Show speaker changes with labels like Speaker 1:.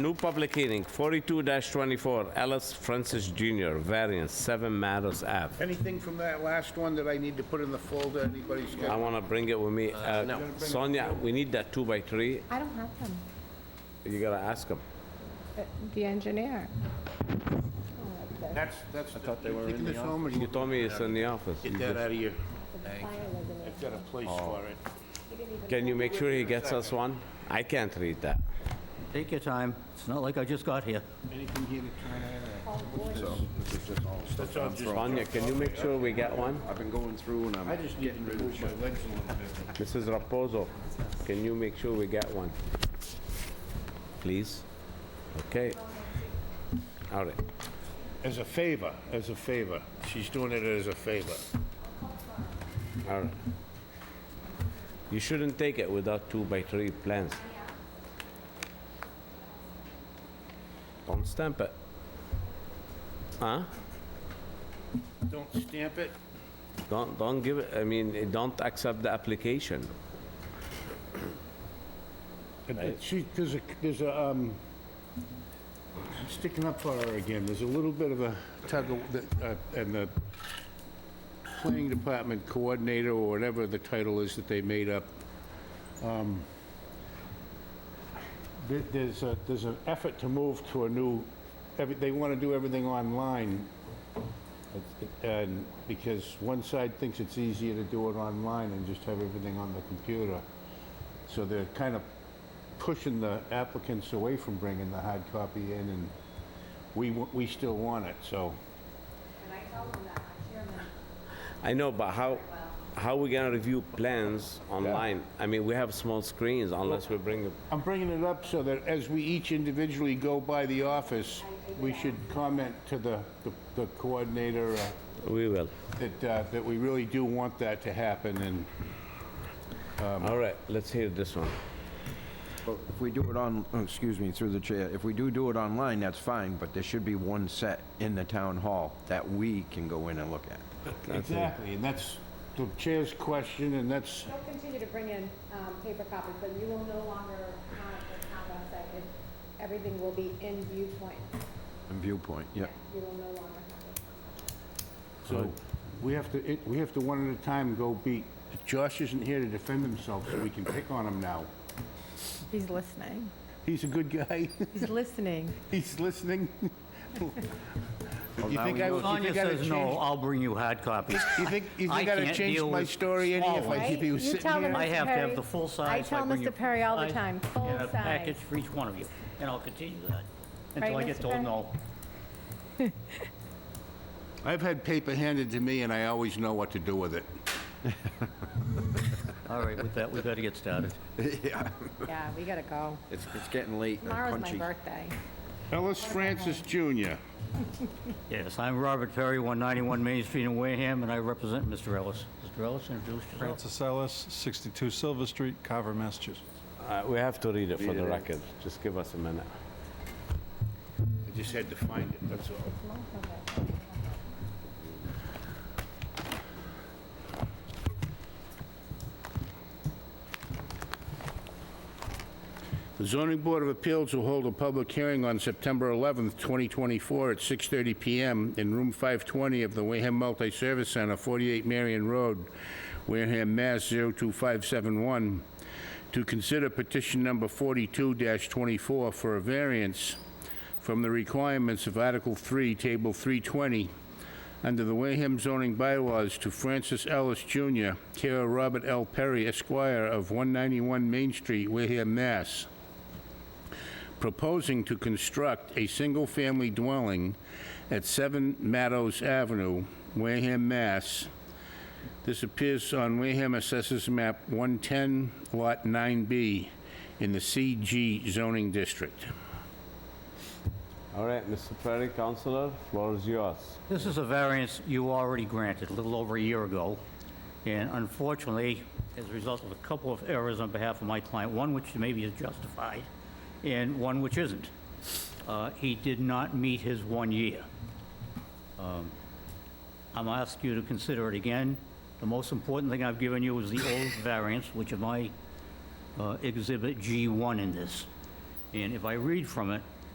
Speaker 1: New public hearing, 42-24, Ellis Francis Jr., variance, 7 Meadows Ave.
Speaker 2: Anything from that last one that I need to put in the folder, anybody's
Speaker 1: I
Speaker 2: got?
Speaker 1: want to bring it with me. Uh, Sonia, we need that two by three.
Speaker 3: I don't have them.
Speaker 1: You gotta ask him.
Speaker 3: Uh, The engineer.
Speaker 2: That's, that's, you're taking this home
Speaker 1: You
Speaker 2: and
Speaker 1: told me it's in the office.
Speaker 2: get that out of your, I've got a place for it.
Speaker 1: Can you make sure he gets us one? I can't read that.
Speaker 4: Take your time. It's not like I just got here.
Speaker 2: Anything here to try and...
Speaker 1: Sonia, can you make sure we get one?
Speaker 5: I've been going through and
Speaker 2: I
Speaker 5: I'm,
Speaker 2: just need to move my legs a little bit.
Speaker 1: Mrs. Raposo, can you make sure we get one? Please? Okay. All right.
Speaker 2: As a favor, as a favor. She's doing it as a favor.
Speaker 1: All right. You shouldn't take it without two by three plans. Don't stamp it. Huh?
Speaker 2: Don't stamp it.
Speaker 1: Don't, don't give it, I mean, eh, don't accept the application.
Speaker 2: But it- She, there's a, there's a, um, I'm sticking up for her again, there's a little bit of a tug of, the- uh, and the planning department coordinator, or whatever the title is that they made up. um, there- There's a, there's an effort to move to a new, every- they want to do everything online. And, because one side thinks it's easier to do it online and just have everything on the computer. So they're kind of pushing the applicants away from bringing the hard copy in, and we, wa- we still want it, so.
Speaker 3: uh,
Speaker 1: I know, but how, how we gonna review plans online? I mean, we have small screens unless we bring, a-
Speaker 2: I'm bringing it up so that as we each individually go by the office, we should comment to the, the- the coordinator uh,
Speaker 1: we will.
Speaker 2: that, uh, that we really do want that to happen, and
Speaker 1: All right, let's hear this one.
Speaker 5: Well, if we do it on, oh, excuse me, through the chair, if we do do it online, that's fine, but there should be one set in the town hall that we can go in and look at.
Speaker 2: Exactly, and that's the chair's question, and that's,
Speaker 3: They'll continue to bring in um, paper copies, but you will no longer have the town website. It- Everything will be in viewpoint.
Speaker 5: And viewpoint, yeah.
Speaker 3: You will no longer have
Speaker 2: so, we have to, it- we have to one at a time go beat. Josh isn't here to defend himself, so we can pick on him now.
Speaker 3: it. He's listening.
Speaker 2: He's a good guy.
Speaker 3: He's listening.
Speaker 2: He's listening. You
Speaker 5: now
Speaker 2: think
Speaker 5: we
Speaker 2: I
Speaker 5: know.
Speaker 2: would, you
Speaker 4: Sonia
Speaker 2: think I'd
Speaker 4: says no,
Speaker 2: change,
Speaker 4: I'll bring you hard copies.
Speaker 2: you think, you
Speaker 4: I
Speaker 2: think I'd have
Speaker 4: can't
Speaker 2: changed
Speaker 4: deal
Speaker 2: my
Speaker 4: with
Speaker 2: story any if
Speaker 4: small
Speaker 2: I,
Speaker 4: ones.
Speaker 2: if he was
Speaker 3: You
Speaker 2: sitting
Speaker 3: tell them-
Speaker 2: here?
Speaker 4: I have to
Speaker 3: Perry,
Speaker 4: have the full size.
Speaker 3: I
Speaker 4: so
Speaker 3: tell
Speaker 4: bring
Speaker 3: Mr.
Speaker 4: you
Speaker 3: Perry all the
Speaker 4: size
Speaker 3: time, full
Speaker 4: And a
Speaker 3: size.
Speaker 4: package for each one of you, and I'll continue that until I
Speaker 3: Right,
Speaker 4: get
Speaker 3: Mr.
Speaker 4: told
Speaker 3: Perry?
Speaker 4: no.
Speaker 2: I've had paper handed to me and I always know what to do with it.
Speaker 4: All right, with that, we better get started.
Speaker 3: Yeah, we gotta go.
Speaker 5: It's, it's getting late and
Speaker 3: Tomorrow's my
Speaker 5: punchy.
Speaker 3: birthday.
Speaker 2: Ellis Francis Jr.
Speaker 4: Yes, I'm Robert Perry, 191 Main Street in Wareham, and I represent Mr. Ellis. Mr. Ellis, introduce yourself.
Speaker 6: Francis Ellis, 62 Silver Street, Carver, Massachusetts.
Speaker 1: Uh, We have to read it for the record. Just give us a minute.
Speaker 2: I just had to find it, that's all. The zoning board of appeals will hold a public hearing on September 11th, 2024 at 6:30 PM in room 520 of the Wareham Multi-Service Center, 48 Marion Road, Wareham, Mass. 02571, to consider petition number 42-24 for a variance from the requirements of Article 3, Table 320, under the Wareham zoning bylaws to Francis Ellis Jr., care of Robert L. Perry Esquire of 191 Main Street, Wareham, Mass., proposing to construct a single-family dwelling at 7 Meadows Avenue, Wareham, Mass. This appears on Wareham Assessors Map 110, Lot 9B, in the CG zoning district.
Speaker 1: All right, Mr. Perry, Counselor, floor is yours.
Speaker 4: This is a variance you already granted a little over a year ago, and unfortunately, as a result of a couple of errors on behalf of my client, one which maybe is justified, and one which isn't, uh, he did not meet his one year. Um, I'm asking you to consider it again. The most important thing I've given you is the old variance, which is my uh, Exhibit G1 in this. And if I read from it,